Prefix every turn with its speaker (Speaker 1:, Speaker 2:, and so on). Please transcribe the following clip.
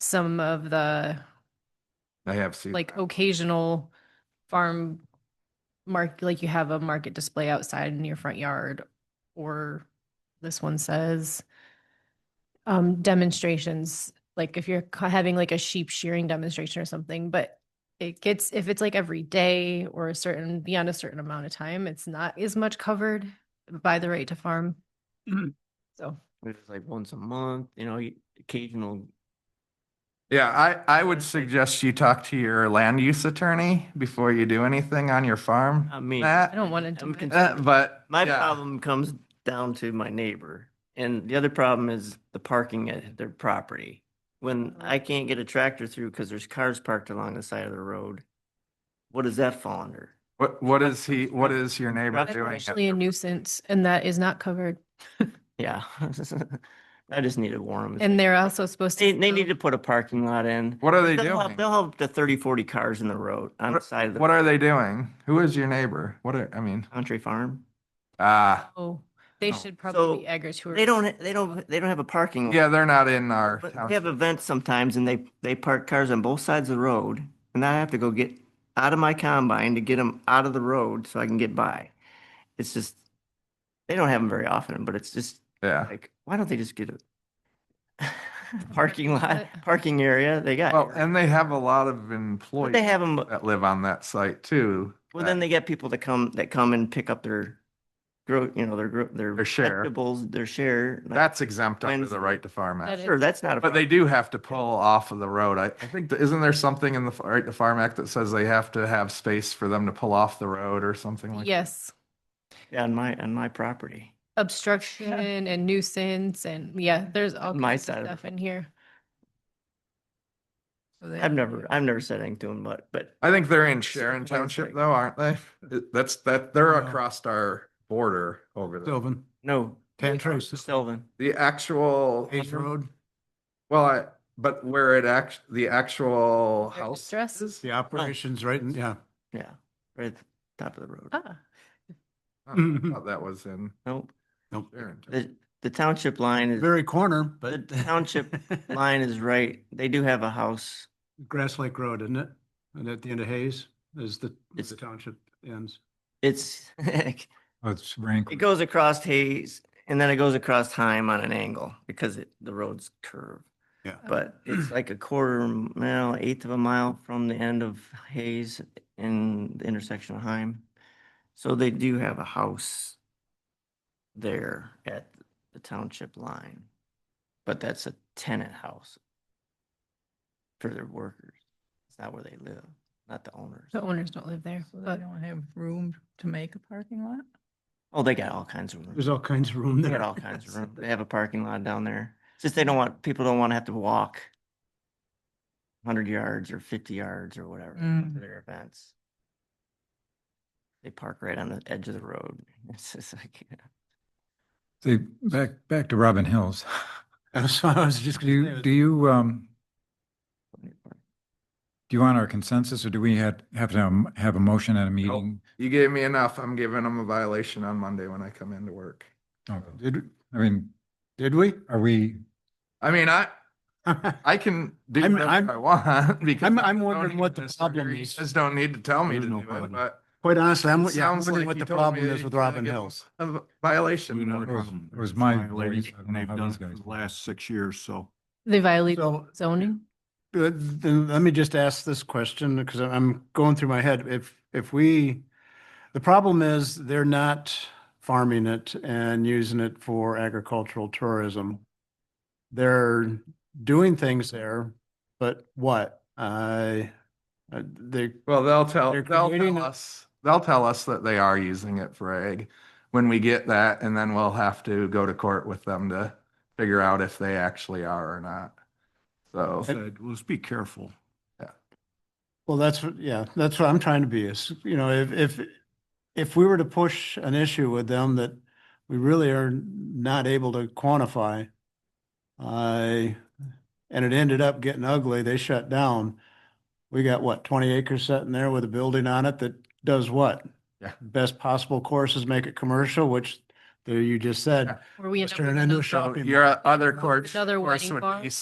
Speaker 1: some of the
Speaker 2: I have seen.
Speaker 1: like
Speaker 2: that.
Speaker 1: occasional farm mark, like you have a market display outside in your front yard, or this one says um, demonstrations, like if you're ca- having like a sheep shearing demonstration or something, but it gets, if it's like every day or a certain, beyond a certain amount of time, it's not as much covered by the right to farm. So,
Speaker 3: It's like once a month, you know, you- occasional.
Speaker 2: Yeah, I, I would suggest you talk to your land use attorney before you do anything on your farm.
Speaker 3: I mean,
Speaker 1: I
Speaker 2: That,
Speaker 1: don't want to
Speaker 3: I'm
Speaker 1: do it.
Speaker 3: concerned
Speaker 2: uh, but.
Speaker 3: my
Speaker 2: yeah.
Speaker 3: problem comes down to my neighbor, and the other problem is the parking at their property. When
Speaker 2: Uh-huh.
Speaker 3: I can't get a tractor through because there's cars parked along the side of the road, what does that fall under?
Speaker 2: What, what is he, what is your neighbor
Speaker 3: That's
Speaker 1: That's
Speaker 2: doing? at
Speaker 1: actually a
Speaker 2: your-
Speaker 1: nuisance and that is not covered.
Speaker 3: Yeah, I just need to warn them.
Speaker 1: And they're also supposed to.
Speaker 3: They, they
Speaker 1: sell-
Speaker 3: need to put a parking lot in.
Speaker 2: What are uh-huh. they
Speaker 3: They'll have,
Speaker 2: doing?
Speaker 3: they'll have the 30, 40 cars in the road on the side of
Speaker 2: What
Speaker 3: the
Speaker 2: are they doing? Who is your neighbor? What are, I mean,
Speaker 3: country farm.
Speaker 2: ah,
Speaker 1: Oh, they
Speaker 2: No.
Speaker 1: should probably be
Speaker 3: So,
Speaker 1: agritourism.
Speaker 3: They don't, they don't, they don't have a parking lot.
Speaker 2: yeah, they're not in our
Speaker 3: But
Speaker 2: town.
Speaker 3: we have events sometimes and they, they park cars on both sides of the road and I have to go get out of my combine to get them out of the road so I can get by. It's just, they don't have them very often, but it's just
Speaker 2: Yeah.
Speaker 3: like, why don't they just get a parking lot,
Speaker 1: lot.
Speaker 3: parking area? They got.
Speaker 2: Well, and they have a lot of
Speaker 3: But they
Speaker 2: employees
Speaker 3: have them,
Speaker 2: that live on that site too.
Speaker 3: well,
Speaker 2: that-
Speaker 3: then they get people to come, that come and pick up their grow, you know, their, gro- their.
Speaker 2: Their share.
Speaker 3: vegetables, Their share. like,
Speaker 2: That's exempt under
Speaker 3: When's-
Speaker 2: the right to farm
Speaker 1: That
Speaker 2: act.
Speaker 1: is-
Speaker 3: Sure, that's not a.
Speaker 2: But
Speaker 3: problem.
Speaker 2: they do have to pull off of the road. I, I think, that- isn't there something in the, F- right, the Farm Act that says they have to have space for them to pull off the road or something like? that?
Speaker 1: Yes,
Speaker 3: Yeah, On my, on my property.
Speaker 1: obstruction and nuisance and yeah, there's all
Speaker 3: My
Speaker 1: kinds of
Speaker 3: side of the
Speaker 1: stuff in here. So they-
Speaker 3: I've never, I've never said anything to him, but, but
Speaker 2: I think they're in Sharon
Speaker 3: Something like
Speaker 2: Township
Speaker 3: that.
Speaker 2: though, aren't they? It- That's, that, they're
Speaker 4: No.
Speaker 2: across our border over there.
Speaker 4: Sylvan,
Speaker 3: no.
Speaker 4: Tantros,
Speaker 3: Sylvan.
Speaker 2: The actual,
Speaker 4: Hayes Road,
Speaker 2: well, I, but where it act, the actual
Speaker 1: Their
Speaker 2: house
Speaker 1: distress?
Speaker 2: is?
Speaker 4: the operations right in, yeah.
Speaker 3: Yeah, right at the top of the road.
Speaker 1: Ah,
Speaker 2: Oh, I thought That was in
Speaker 3: Nope.
Speaker 4: Nope.
Speaker 2: Sharon. Township.
Speaker 3: The, the township line is,
Speaker 4: Very corner, but.
Speaker 3: The township line is right. They do have a house.
Speaker 4: Grass Lake Road, isn't it? And at the end of Hayes is the, where
Speaker 3: It's-
Speaker 4: the township ends.
Speaker 3: It's, it
Speaker 4: That's rank.
Speaker 3: goes across Hayes and then it goes across Heim on an angle because it, the road's curved.
Speaker 4: Yeah.
Speaker 3: But it's like a quarter mile, eighth of a mile from the end of Hayes and the intersection of Heim. So they do have a house there at the township line. But that's a tenant house for their workers. It's not where they live, not the owners.
Speaker 1: The owners don't live there,
Speaker 5: So they
Speaker 1: but
Speaker 5: don't have room to make a parking lot?
Speaker 3: Oh, they got all kinds of rooms.
Speaker 4: There's all kinds of room
Speaker 3: They got
Speaker 4: there.
Speaker 3: all kinds of room. They have a parking lot down there. It's just they don't want, people don't want to have to walk hundred yards or fifty yards or whatever
Speaker 5: Mm.
Speaker 3: to their events. They park right on the edge of the road. It's just like,
Speaker 6: See, back, back to Robin Hills.
Speaker 4: So I was just
Speaker 6: Do
Speaker 4: gonna say,
Speaker 6: you, do you, um, do you want our consensus or do we had, have to um, have a motion at a meeting?
Speaker 2: You gave me enough. I'm giving them a violation on Monday when I come into work.
Speaker 6: Oh, Did, I mean,
Speaker 4: Did we?
Speaker 6: are we,
Speaker 2: I mean, I,
Speaker 4: I
Speaker 2: I can do
Speaker 4: I'm-
Speaker 2: whatever
Speaker 4: I'm-
Speaker 2: I want because.
Speaker 4: I'm-
Speaker 2: I
Speaker 4: I'm
Speaker 2: don't
Speaker 4: wondering
Speaker 2: need
Speaker 4: what the
Speaker 2: this
Speaker 4: problem
Speaker 2: surgery. You
Speaker 4: is.
Speaker 2: Just don't need to tell me to
Speaker 4: There's
Speaker 2: do
Speaker 4: no
Speaker 2: it,
Speaker 4: problem.
Speaker 2: but
Speaker 4: Quite honestly, I'm,
Speaker 2: It
Speaker 4: yeah, I'm
Speaker 2: sounds
Speaker 4: wondering
Speaker 2: like
Speaker 4: what
Speaker 2: you
Speaker 4: the
Speaker 2: told me
Speaker 4: problem
Speaker 2: that
Speaker 4: is
Speaker 2: you
Speaker 4: with
Speaker 2: gotta
Speaker 4: Robin
Speaker 2: get-
Speaker 4: Hills.
Speaker 2: a v- violation.
Speaker 7: We know
Speaker 2: notice.
Speaker 6: it was-
Speaker 7: problem.
Speaker 6: it was
Speaker 7: It's
Speaker 6: my
Speaker 7: violated,
Speaker 6: voice. I don't
Speaker 7: And
Speaker 6: know
Speaker 7: they've
Speaker 6: how
Speaker 7: done
Speaker 6: these
Speaker 7: it for
Speaker 6: guys
Speaker 7: the
Speaker 6: feel.
Speaker 7: last six years, so.
Speaker 1: they violate
Speaker 4: So
Speaker 1: zoning.
Speaker 4: Uh, Then let me just ask this question because I'm going through my head. If, if we, the problem is they're not farming it and using it for agricultural tourism. They're doing things there, but what? I, uh, they,
Speaker 2: Well, they'll tell,
Speaker 4: They're
Speaker 2: they'll
Speaker 4: creating
Speaker 2: tell
Speaker 4: a-
Speaker 2: us, they'll tell us that they are using it for egg when we get that, and then we'll have to go to court with them to figure out if they actually are or not. So,
Speaker 7: Said, let's be careful.
Speaker 4: well, that's, what- yeah, that's what I'm trying to be is, you know, if, if, if we were to push an issue with them that we really are not able to quantify. I, and it ended up getting ugly. They shut down. We got what, twenty acres sitting there with a building on it that does what?
Speaker 2: Yeah.
Speaker 4: Best possible courses, make it commercial, which there you just said.
Speaker 2: Yeah.
Speaker 1: Where we end
Speaker 4: Let's
Speaker 1: up
Speaker 4: turn
Speaker 1: with
Speaker 4: it into a
Speaker 1: another-
Speaker 4: shop.
Speaker 2: your other courts.
Speaker 1: Another
Speaker 2: course
Speaker 1: wedding
Speaker 2: would
Speaker 1: bar?
Speaker 2: be